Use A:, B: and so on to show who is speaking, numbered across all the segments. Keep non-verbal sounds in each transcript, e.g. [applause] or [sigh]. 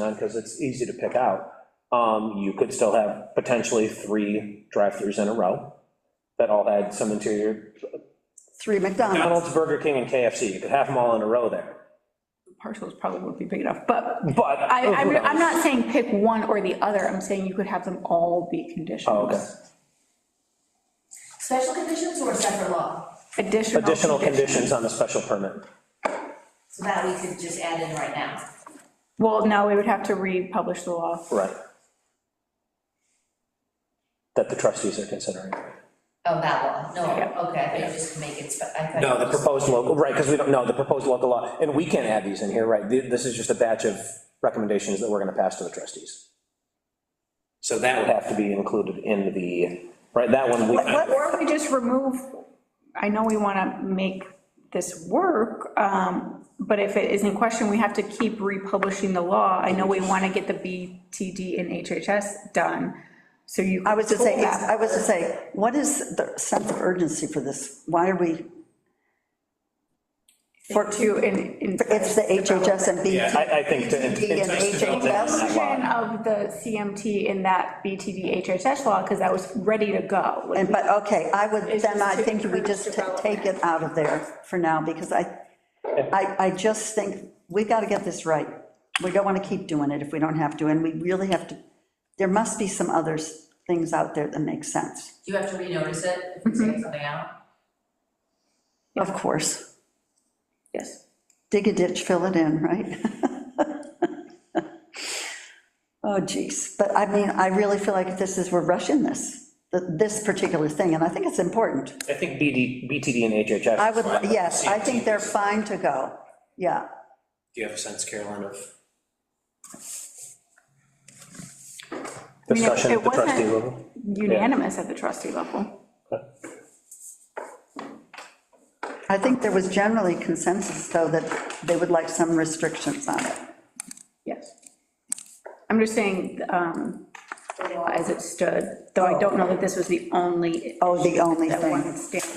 A: on, because it's easy to pick out, um, you could still have potentially three drive-throughs in a row that all had some interior,
B: Three McDonald's,
A: McDonald's, Burger King, and KFC, you could have them all in a row there,
C: Parcels probably won't be big enough, but
A: but.
C: I,
A: who
C: I'm,
A: knows?
C: I'm not saying pick one or the other, I'm saying you could have them all be conditions.
A: Oh, okay.
D: Special conditions or a separate law?
C: Additional.
A: Additional conditions on the special permit.
D: So that we could just add in right now.
C: Well, no, we would have to republish the law.
A: Right. That the trustees are considering.
D: Oh, that law, no,
C: Yeah.
D: okay, I thought you just make it, spe- I thought.
A: No, the proposed local, right, because we don't know, the proposed local law, and we can't add these in here, right? Th- This is just a batch of recommendations that we're gonna pass to the trustees. So that would have to be included in the, right, that one, we,
C: Or we just remove, I know we want to make this work, um, but if it is in question, we have to keep republishing the law. I know we want to get the BTD and HHS done, so you.
B: I was to say,
C: pull that.
B: I was to say, what is the sense of urgency for this? Why are we,
C: For two, in, in.
B: it's the HHS and BT.
A: I, I think to.
B: BTD and
A: entice development on that law.
C: Version Of the CMT in that BTD HHS law, because that was ready to go. Like,
B: And, but, okay, I would,
C: It's
B: then
C: just
B: I
C: to
B: think we
C: encourage
B: just ta-
C: development.
B: take it out of there for now, because I, I, I just think, we gotta get this right. We don't wanna keep doing it if we don't have to, and we really have to, there must be some other s- things out there that make sense,
D: Do you have to renotice it if we
C: Mm-hmm.
D: take something out?
B: of course.
C: Yes.
B: Dig a ditch, fill it in, right? [laughs] Oh, geez, but I mean, I really feel like this is, we're rushing this, th- this particular thing, and I think it's important.
A: I think BD, BTD and HHS.
B: I would, yes, I think they're fine to go, yeah.
A: Do you have a sense, Caroline, of?
C: I mean, it-
A: Discussion at
C: it
A: the trustee
C: wasn't
A: level?
C: Unanimous at the trustee level.
B: I think there was generally consensus, though, that they would like some restrictions on it.
C: Yes. I'm just saying, um, the law as it stood, though I don't know that this was the only,
B: Oh, the only
C: that
B: thing.
C: one standard.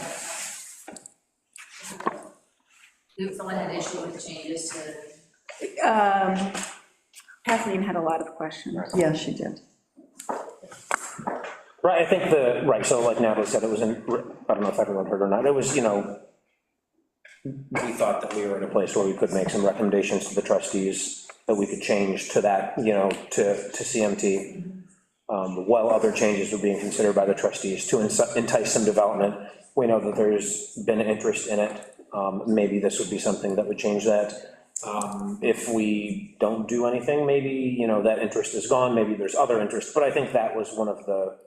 D: If someone had issue with changes to,
C: Um, Kathleen had a lot of questions.
B: Yeah, she did.
A: Right, I think the, right, so like Natalie said, it was in, I don't know if everyone heard or not, it was, you know, we thought that we were in a place where we could make some recommendations to the trustees that we could change to that, you know, to, to CMT, um, while other changes were being considered by the trustees to inci- entice some development. We know that there's been interest in it, um, maybe this would be something that would change that. Um, If we don't do anything, maybe, you know, that interest is gone, maybe there's other interest, but I think that was one of the,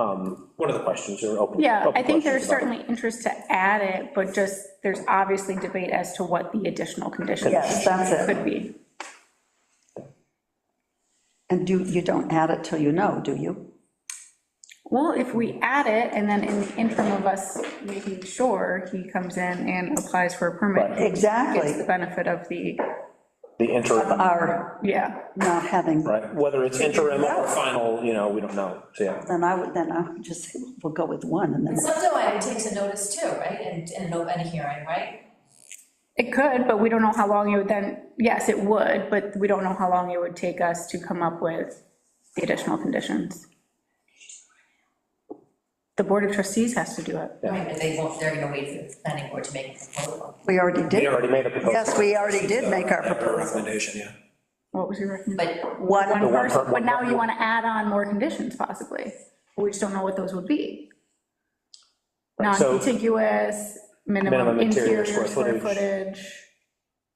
A: um, one of the questions or open.
C: Yeah, I
A: open
C: think
A: questions
C: there's
A: about
C: certainly interest to add it, but just, there's obviously debate as to what the additional conditions
B: Yes, that's it.
C: could be.
B: And do, you don't add it till you know, do you?
C: Well, if we add it, and then in the interim of us making sure, he comes in and applies for a permit.
A: Right.
C: Gets the
B: Exactly.
C: benefit of the,
A: The interim,
B: Our
C: yeah.
B: not having,
A: right, whether it's interim or final, you know, we don't know, so, yeah.
B: then I would, then I would just, say, we'll go with one, and
D: and
B: then,
D: subdivider takes a notice too, right, and, and an open hearing, right?
C: It could, but we don't know how long it would then, yes, it would, but we don't know how long it would take us to come up with the additional conditions. The Board of Trustees has to do it.
D: Right, but they won't, they're gonna wait for the planning board to make a proposal.
B: we already
A: We
B: did.
A: already made a proposal.
B: Yes, we already did make our proposal.
E: Recommendation, yeah.
C: What was your recommendation?
D: But
B: One,
C: One
A: one
C: person,
A: per-
C: but now you want to add on more conditions possibly. We just don't know what those would be.
A: Right, so-
C: Non-contiguous, minimum
A: Minimum interior
C: interior
A: square
C: square
A: footage.
C: footage.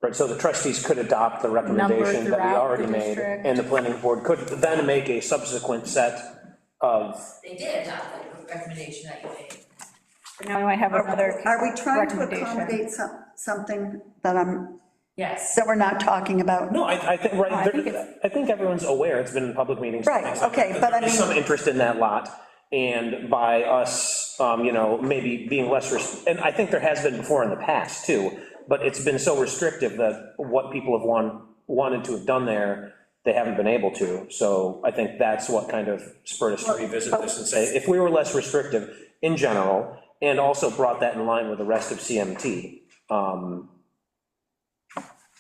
A: Right, so the trustees could adopt the recommendation that we
C: throughout the
A: already made,
C: district.
A: and the planning board could then make a subsequent set of,
D: they did adopt the recommendation that you made.
C: Now we might have another.
B: are we trying to
C: recommendation.
B: accommodate some, something that I'm,
D: Yes.
B: that we're not talking about?
A: no, I, I think,
B: Oh,
A: right,
C: I think
A: there- I think everyone's aware, it's been in public meetings.
B: Right,
A: things like that,
B: okay,
A: that
B: but I
A: there is
B: mean-
A: Some interest in that lot, and by us, um, you know, maybe being less, rest- and I think there has been before in the past, too, but it's been so restrictive that what people have want, wanted to have done there, they haven't been able to, so I think that's what kind of spurred us to revisit
B: oh.
A: this and say, if we were less restrictive in general, and also brought that in line with the rest of CMT, um,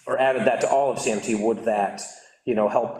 A: or added that to all of CMT, would that, you know, help